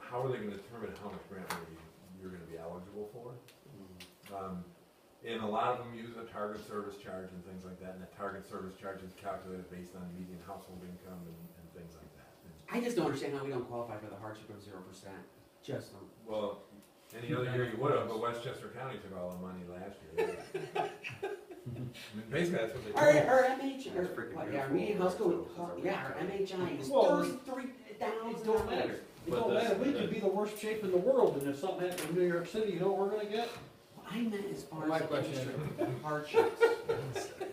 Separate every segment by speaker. Speaker 1: how are they gonna determine how much grant money you're gonna be eligible for? Um, and a lot of them use a target service charge and things like that, and the target service charge is calculated based on median household income and, and things like that. And,
Speaker 2: I just don't understand how we don't qualify for the hardship of zero percent. Just don't.
Speaker 1: Well, any other year you would have, but Westchester County took all the money last year. I mean, basically, that's what they.
Speaker 2: Our,
Speaker 1: do.
Speaker 2: our MH,
Speaker 3: That's
Speaker 2: or,
Speaker 3: freaking
Speaker 2: what, yeah, our
Speaker 3: beautiful
Speaker 2: median
Speaker 3: over
Speaker 2: household,
Speaker 3: there, so it's a
Speaker 2: yeah, our
Speaker 3: really-
Speaker 2: MHI is
Speaker 4: Well, it's-
Speaker 2: thirty-three thousand
Speaker 4: It don't matter.
Speaker 2: dollars.
Speaker 4: It
Speaker 3: But
Speaker 4: don't
Speaker 3: that's-
Speaker 4: matter, we could
Speaker 3: that-
Speaker 4: be the worst shape in the world, and if something happened in New York City, you know what we're gonna get?
Speaker 2: I meant as far
Speaker 5: My
Speaker 2: as the
Speaker 5: question-
Speaker 2: industry hardships.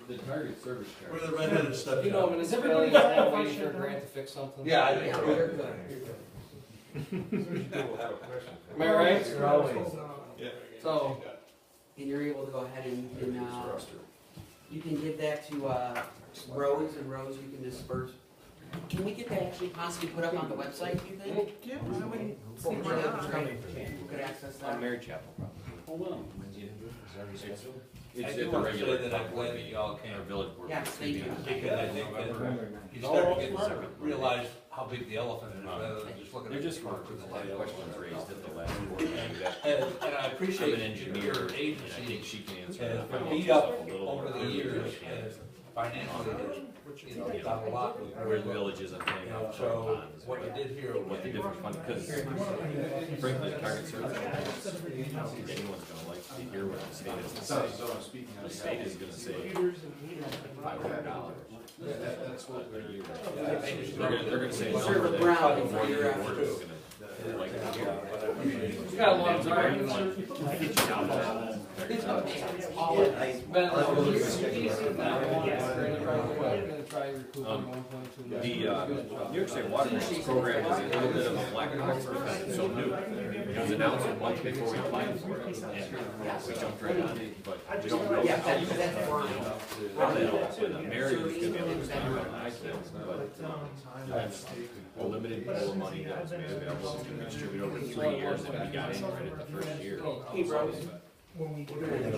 Speaker 5: The target service
Speaker 6: Where
Speaker 5: charge.
Speaker 6: the redheaded stuff.
Speaker 5: You know, when
Speaker 4: Does
Speaker 5: it's
Speaker 4: everybody
Speaker 5: everybody
Speaker 4: have a
Speaker 5: waiting
Speaker 4: question
Speaker 5: for a
Speaker 4: now?
Speaker 5: grant to fix something.
Speaker 6: Yeah, I think
Speaker 2: Yeah,
Speaker 6: so.
Speaker 2: you're good, you're good.
Speaker 1: People have a question.
Speaker 5: Am I right?
Speaker 1: You're always-
Speaker 5: So,
Speaker 2: And you're able to go ahead and, and, uh,
Speaker 6: Roster.
Speaker 2: you can give that to, uh, roads and roads you can disperse. Can we get that actually possibly put up on the website, do you think?
Speaker 4: Yeah.
Speaker 2: I wouldn't see
Speaker 4: Well,
Speaker 2: why not,
Speaker 4: it's
Speaker 2: right? You could access that.
Speaker 5: Mary Chapel probably.
Speaker 4: Hold on.
Speaker 6: I do wanna say that I'm glad that y'all came,
Speaker 5: village board.
Speaker 2: Yes, they do.
Speaker 6: because I think that you
Speaker 4: All
Speaker 6: start
Speaker 4: of
Speaker 6: to get
Speaker 4: us
Speaker 6: to
Speaker 4: are.
Speaker 6: realize how big the elephant is, rather than just looking at.
Speaker 7: They're just
Speaker 6: work
Speaker 7: smart
Speaker 6: with
Speaker 7: because
Speaker 6: the
Speaker 7: a lot of
Speaker 6: light.
Speaker 7: questions raised at the last board meeting that
Speaker 6: And, and I
Speaker 7: I'm an
Speaker 6: appreciate
Speaker 7: engineer
Speaker 6: your
Speaker 7: and I
Speaker 6: agency
Speaker 7: think she can answer
Speaker 6: has
Speaker 7: that.
Speaker 6: been
Speaker 7: I'm
Speaker 6: beat
Speaker 7: just
Speaker 6: up
Speaker 7: a little
Speaker 6: over the
Speaker 7: earlier than
Speaker 6: years,
Speaker 7: she
Speaker 6: and
Speaker 7: has.
Speaker 6: financially, there's, you know, done a lot with
Speaker 7: Where
Speaker 6: very
Speaker 7: the
Speaker 6: little.
Speaker 7: village isn't paying
Speaker 6: And
Speaker 7: off for the
Speaker 6: so,
Speaker 7: pond is
Speaker 6: what
Speaker 7: what,
Speaker 6: you did here
Speaker 7: what
Speaker 6: was,
Speaker 7: the different fund, because frankly, the target service, I don't think anyone's gonna like to hear what the state is gonna say.
Speaker 5: I'm speaking
Speaker 7: The state is gonna say five hundred dollars.
Speaker 5: That's what we're.
Speaker 6: Yeah, I just-
Speaker 7: They're gonna, they're gonna say a number
Speaker 2: Serve a
Speaker 7: that
Speaker 2: brown
Speaker 7: probably more than
Speaker 2: you're
Speaker 7: your
Speaker 2: after.
Speaker 7: board is gonna like to hear.
Speaker 5: You got a lot of time.
Speaker 2: It's
Speaker 7: They're
Speaker 2: okay, it's all in.
Speaker 7: gonna- The, uh, New York State Water Resources Program is a little bit of a black box for us, it's so new. It was announced a month before we applied for it, and we jumped right on it, but we don't know.
Speaker 2: Yeah, that's, that's Brian.
Speaker 7: Well, they don't, but the mayor is gonna be able to spend it on accidents, but that's a limited pool of money that was made available, it's gonna be distributed over three years, and we got in right at the first year.
Speaker 2: Hey, bro.
Speaker 8: Okay,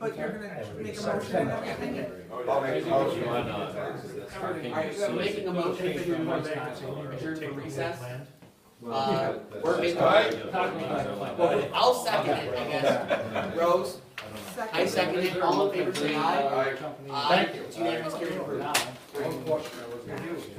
Speaker 8: but you're gonna make a motion and everything?
Speaker 2: Alright,
Speaker 7: On, uh,
Speaker 2: we're making a motion to adjourn for recess. Uh, we're making, well, I'll second it, I guess. Rose, I second it, all in favor, say aye. Aye, it's unanimous, carried approved.
Speaker 4: One question I was gonna do.